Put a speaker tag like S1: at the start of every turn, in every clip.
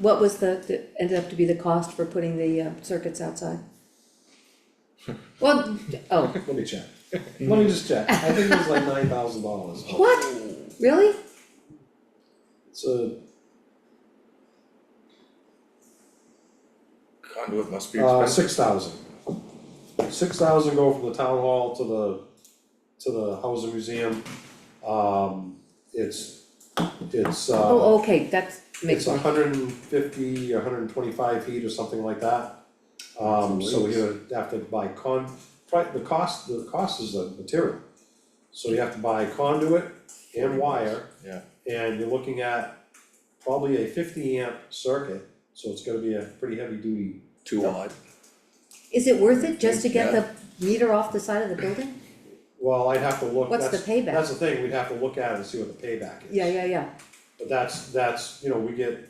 S1: What was the, that ended up to be the cost for putting the uh, circuits outside? Well, oh,
S2: Let me check. Let me just check. I think it was like nine thousand dollars.
S1: what?
S2: Um,
S1: Really?
S2: So,
S3: Conduit must be
S2: uh,
S3: expensive.
S2: six thousand. Six thousand go from the town hall to the, to the housing museum. Um, it's, it's, uh.
S1: Oh, okay, that's makes
S2: It's
S1: more.
S2: hundred and fifty, hundred and twenty-five feet or something like that. Um, so
S3: Jeez.
S2: you would have to buy con, pri- the cost, the cost is the material. So you have to buy conduit and wire.
S3: Yeah.
S2: And you're looking at probably a fifty amp circuit, so it's gonna be a pretty heavy duty.
S3: Too odd.
S1: Is it worth it just to get the meter off the side of the building?
S2: Well, I'd have to look,
S1: What's the
S2: that's,
S1: payback?
S2: that's the thing, we'd have to look at it and see what the payback is.
S1: Yeah, yeah, yeah,
S2: But that's, that's, you know, we get.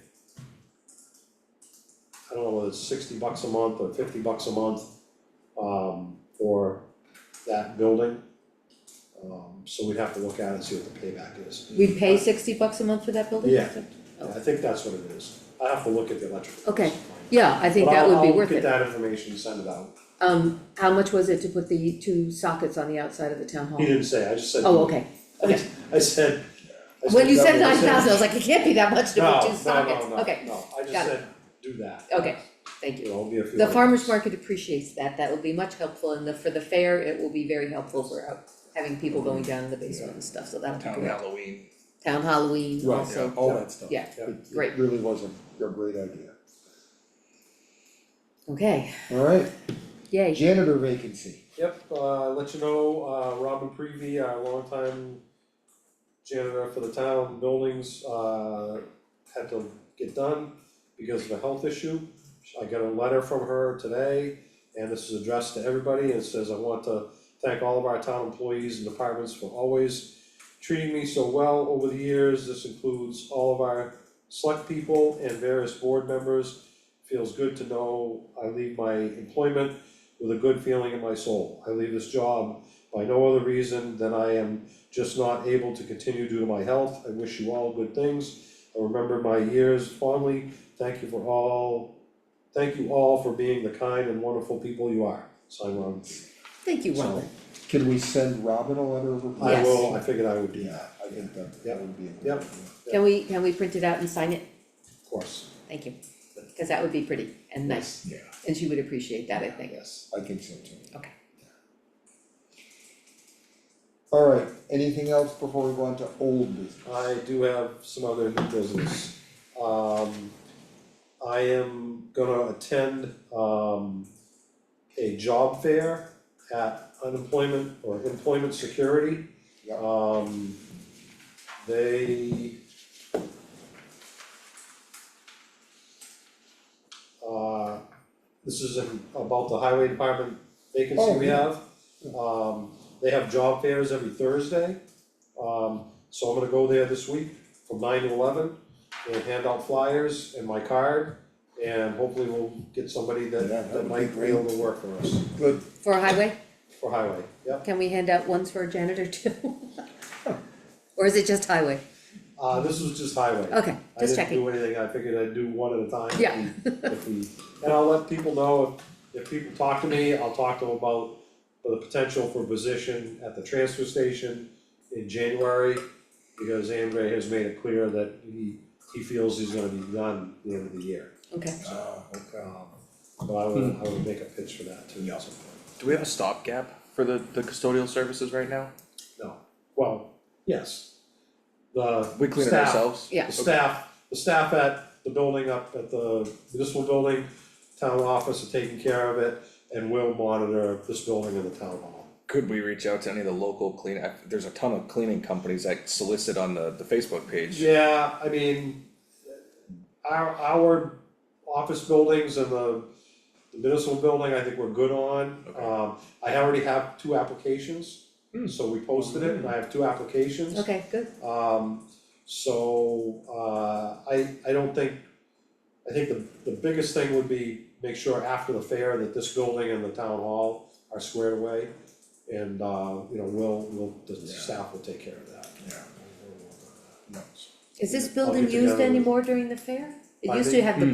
S2: I don't know whether it's sixty bucks a month or fifty bucks a month, um, for that building. Um, so we'd have to look at it and see what the payback is.
S1: we pay sixty bucks a month for that building?
S2: Yeah. I think that's what it is, I have to look at the electrical.
S1: Okay, yeah, I think that would be worth
S2: But
S1: it.
S2: I'll, I'll get that information, and send it out,
S1: Um, how much was it to put the two sockets on the outside of the town
S2: he
S1: hall?
S2: didn't say, I just said.
S1: Oh, okay,
S2: I s- I said. I
S1: when you said
S2: that, I
S1: nine thousand, I was like, it can't be that much to put two sockets,
S2: No, no, no,
S1: okay,
S2: no, I just
S1: got it.
S2: said, do that.
S1: Okay. thank you.
S2: You know, it'll be a few.
S1: The
S2: hundred
S1: farmer's
S2: bucks.
S1: market appreciates that, that will be much helpful, and the, for the fair, it will be very helpful for out- having people going down in the basement and stuff, so that'll be
S3: Town
S1: great.
S3: Halloween.
S1: Town Halloween
S4: Right,
S1: also,
S4: all that stuff.
S1: yeah,
S2: Yeah.
S4: It-
S1: great.
S4: It really was a, a great idea.
S1: okay,
S4: Alright,
S1: yay.
S4: janitor vacancy.
S2: Yep, uh, let you know, uh, Robin Prevey, our longtime janitor for the town buildings, uh, had to get done because of a health issue. I got a letter from her today, and this is addressed to everybody, and it says, I want to thank all of our town employees and departments for always treating me so well over the years, this includes all of our select people and various board members. Feels good to know I leave my employment with a good feeling in my soul. I leave this job by no other reason than I am just not able to continue due to my health. I wish you all good things. I remember my years fondly. Thank you for all, thank you all for being the kind and wonderful people you are. Sign Robin.
S1: Thank you,
S2: So-
S1: Robin.
S4: Can we send Robin a letter of approval?
S2: I
S1: Yes.
S2: will, I figured I would do
S4: Yeah,
S2: that,
S4: I think that,
S2: Yep.
S4: that would be a good
S2: Yep.
S4: idea.
S1: Can we, can we print it out and sign it?
S2: of course.
S1: Thank you, cause that would be pretty and nice,
S3: Yeah.
S1: and she would appreciate that, I think.
S2: Yes.
S4: I think so too.
S1: Okay.
S4: Alright, anything else before we go on to old business?
S2: I do have some other new business. Um, I am gonna attend, um, a job fair at unemployment or employment security.
S4: Yeah.
S2: Um, they uh, this is in- about the highway department vacancy
S4: Oh,
S2: we have. Um, they have job fairs every Thursday. Um, so I'm gonna go there this week from nine to eleven and hand out flyers and my card. And hopefully we'll get somebody that
S4: Yeah, that
S2: that
S4: would
S2: might
S4: be
S2: be able to work for us,
S4: Good,
S1: For a highway,
S2: for highway, yep.
S1: can we hand out ones for a janitor too? Or is it just highway?
S2: Uh, this was just highway.
S1: Okay,
S2: I
S1: just
S2: didn't
S1: checking,
S2: do anything, I figured I'd do one at a time. if
S1: Yeah.
S2: we- If we, and I'll let people know, if, if people talk to me, I'll talk to them about the potential for position at the transfer station in January. Because Andre has made it clear that he, he feels he's gonna be done at the end of the year.
S1: okay.
S3: Oh, okay.
S2: Um, But I would,
S3: Hmm.
S2: I would make a pitch for that too. at some point.
S3: Do we have a stopgap for the, the custodial services right now?
S2: No, well, yes. The
S3: We clean it
S2: staff-
S3: ourselves?
S1: Yeah.
S2: The
S3: Okay.
S2: staff, the staff at the building up at the municipal building, town office are taking care of it and will monitor this building and the town hall.
S3: Could we reach out to any of the local clean, I- there's a ton of cleaning companies that solicit on the, the Facebook page.
S2: Yeah, I mean, our, our office buildings and the the municipal building, I think we're good on.
S3: Okay.
S2: Um, I already have two applications,
S3: Hmm.
S2: so we posted it and I have two applications.
S1: Okay, good,
S2: Um, so, uh, I, I don't think, I think the, the biggest thing would be make sure after the fair that this building and the town hall are squared away. And, uh, you know, we'll, we'll, the staff will take care of that.
S3: Yeah.
S1: is this
S2: I'll
S1: building
S2: get together
S1: used
S2: with-
S1: anymore during the fair? It
S2: I
S1: used to
S2: think-
S1: have the